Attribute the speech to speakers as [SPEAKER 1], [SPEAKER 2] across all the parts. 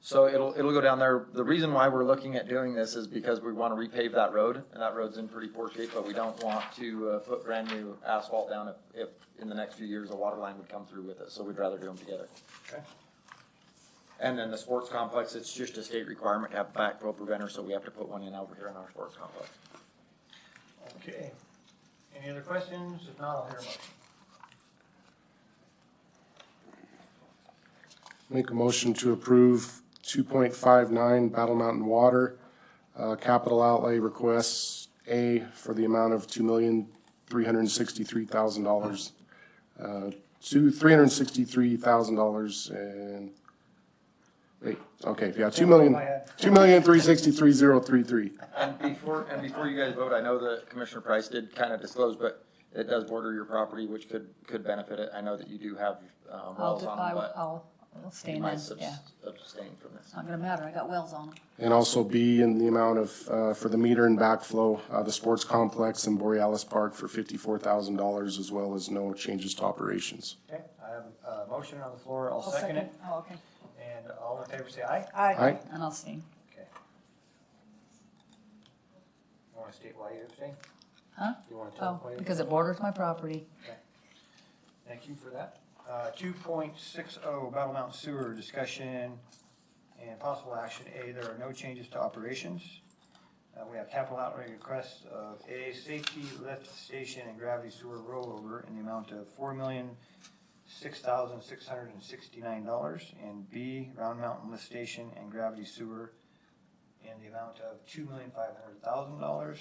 [SPEAKER 1] So it'll, it'll go down there. The reason why we're looking at doing this is because we want to repave that road, and that road's in pretty poor shape, but we don't want to uh, put brand new asphalt down if, if in the next few years, a water line would come through with it, so we'd rather do them together.
[SPEAKER 2] Okay.
[SPEAKER 1] And then the sports complex, it's just a state requirement to have a backflow preventer, so we have to put one in over here in our sports complex.
[SPEAKER 2] Okay. Any other questions? If not, I'll hear a motion.
[SPEAKER 3] Make a motion to approve two point five nine Battle Mountain Water, uh, capital outlay requests A for the amount of two million, three hundred and sixty-three thousand dollars. Uh, to three hundred and sixty-three thousand dollars and, wait, okay, yeah, two million, two million, three sixty-three, zero, three, three.
[SPEAKER 1] And before, and before you guys vote, I know that Commissioner Price did kind of disclose, but it does border your property, which could, could benefit it. I know that you do have, um,
[SPEAKER 4] I'll,
[SPEAKER 1] wells
[SPEAKER 4] do-
[SPEAKER 1] on them,
[SPEAKER 4] I-
[SPEAKER 1] but
[SPEAKER 4] I'll, I'll stay
[SPEAKER 1] you
[SPEAKER 4] in,
[SPEAKER 1] might
[SPEAKER 4] it,
[SPEAKER 1] subs-
[SPEAKER 4] yeah.
[SPEAKER 1] abstain from this.
[SPEAKER 4] It's not gonna matter, I got wells on them.
[SPEAKER 3] And also B in the amount of, uh, for the meter and backflow, uh, the sports complex in Borealis Park for fifty-four thousand dollars as well as no changes to operations.
[SPEAKER 2] Okay, I have a motion on the floor. I'll second it.
[SPEAKER 4] Oh, okay.
[SPEAKER 2] And all in favor say aye.
[SPEAKER 3] Aye.
[SPEAKER 4] And I'll stay.
[SPEAKER 2] Okay. You want to state why you abstain?
[SPEAKER 4] Huh?
[SPEAKER 2] You want to tell
[SPEAKER 4] Oh,
[SPEAKER 2] them why you
[SPEAKER 4] because it borders my property.
[SPEAKER 2] Thank you for that. Uh, two point six oh, Battle Mountain Sewer, discussion and possible action. A, there are no changes to operations. Uh, we have capital outlay requests of A, safety lift station and gravity sewer rollover in the amount of four million, six thousand, six hundred and sixty-nine dollars. And B, Round Mountain lift station and gravity sewer in the amount of two million, five hundred thousand dollars.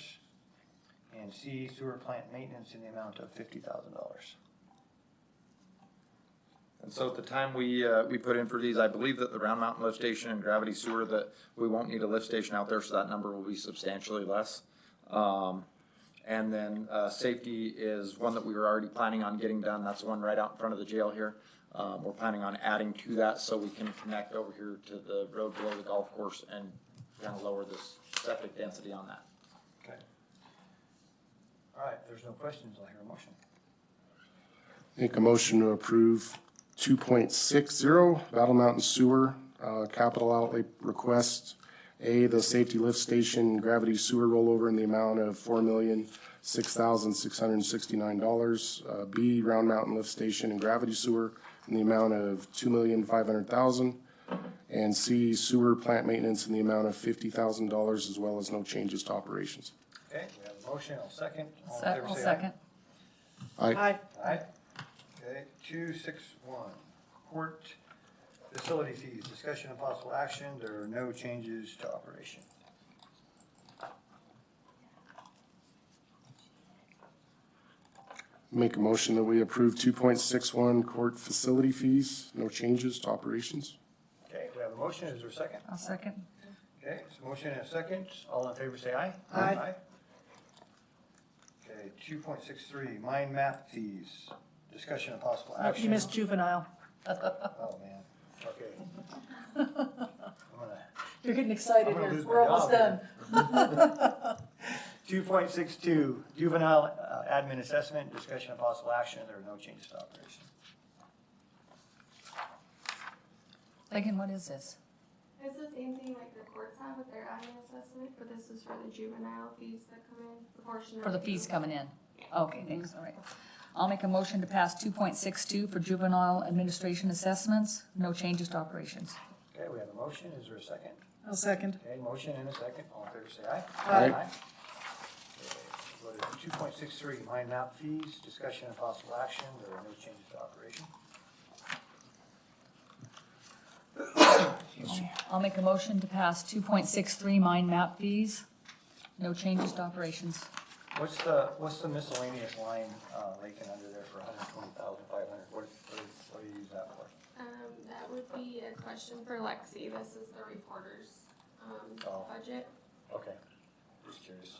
[SPEAKER 2] And C, sewer plant maintenance in the amount of fifty thousand dollars.
[SPEAKER 1] And so at the time we, uh, we put in for these, I believe that the Round Mountain lift station and gravity sewer, that we won't need a lift station out there, so that number will be substantially less. Um, and then, uh, safety is one that we were already planning on getting done. That's the one right out in front of the jail here. Um, we're planning on adding to that so we can connect over here to the road below the golf course and kind of lower this septic density on that.
[SPEAKER 2] Okay. All right, if there's no questions, I'll hear a motion.
[SPEAKER 3] Make a motion to approve two point six zero Battle Mountain Sewer, uh, capital outlay request. A, the safety lift station gravity sewer rollover in the amount of four million, six thousand, six hundred and sixty-nine dollars. Uh, B, Round Mountain Lift Station and Gravity Sewer in the amount of two million, five hundred thousand. And C, sewer plant maintenance in the amount of fifty thousand dollars as well as no changes to operations.
[SPEAKER 2] Okay, we have a motion, I'll second. All in
[SPEAKER 4] Se-
[SPEAKER 2] favor,
[SPEAKER 4] I'll
[SPEAKER 2] say aye.
[SPEAKER 4] second.
[SPEAKER 3] Aye.
[SPEAKER 2] Aye. Okay, two, six, one, court facility fees, discussion and possible action, there are no changes to operation.
[SPEAKER 3] Make a motion that we approve two point six one court facility fees, no changes to operations.
[SPEAKER 2] Okay, we have a motion, is there a second?
[SPEAKER 4] I'll second.
[SPEAKER 2] Okay, it's a motion and a second, all in favor say aye.
[SPEAKER 4] Aye.
[SPEAKER 2] Okay, two point six three, mind map fees, discussion and possible
[SPEAKER 5] Oh,
[SPEAKER 4] Uh,
[SPEAKER 2] action.
[SPEAKER 5] You missed juvenile.
[SPEAKER 2] Oh, man, okay. I'm gonna
[SPEAKER 5] You're getting excited
[SPEAKER 2] I'm gonna
[SPEAKER 5] here.
[SPEAKER 2] lose my
[SPEAKER 5] We're almost
[SPEAKER 2] job
[SPEAKER 5] done.
[SPEAKER 2] Two point six two, juvenile uh, admin assessment, discussion of possible action, there are no changes to operation.
[SPEAKER 4] Megan, what is this?
[SPEAKER 6] It's the same thing like the courts have with their admin assessment, but this is for the juvenile fees that come in, the portion of.
[SPEAKER 4] For the fees coming in? Okay, thanks, all right. I'll make a motion to pass two point six two for juvenile administration assessments, no changes to operations.
[SPEAKER 2] Okay, we have a motion, is there a second?
[SPEAKER 5] I'll second.
[SPEAKER 2] Okay, motion and a second, all in favor say aye.
[SPEAKER 3] Aye.
[SPEAKER 2] Two point six three, mind map fees, discussion of possible action, there are no changes to operation.
[SPEAKER 4] I'll make a motion to pass two point six three mine map fees, no changes to operations.
[SPEAKER 2] What's the, what's the miscellaneous line, uh, Lakin, under there for hundred and twenty thousand five hundred, what, what is- what do you use that for?
[SPEAKER 6] Um, that would be a question for Lexi. This is the reporter's, um,
[SPEAKER 2] Oh.
[SPEAKER 6] budget.
[SPEAKER 2] Okay, just curious.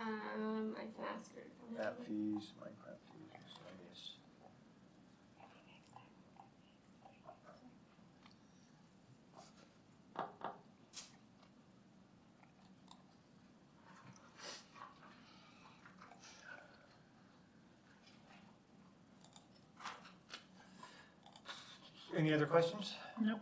[SPEAKER 6] Um, I can ask her. to come in.
[SPEAKER 2] Map fees, Minecraft fees, miscellaneous. Any other questions?
[SPEAKER 5] Nope.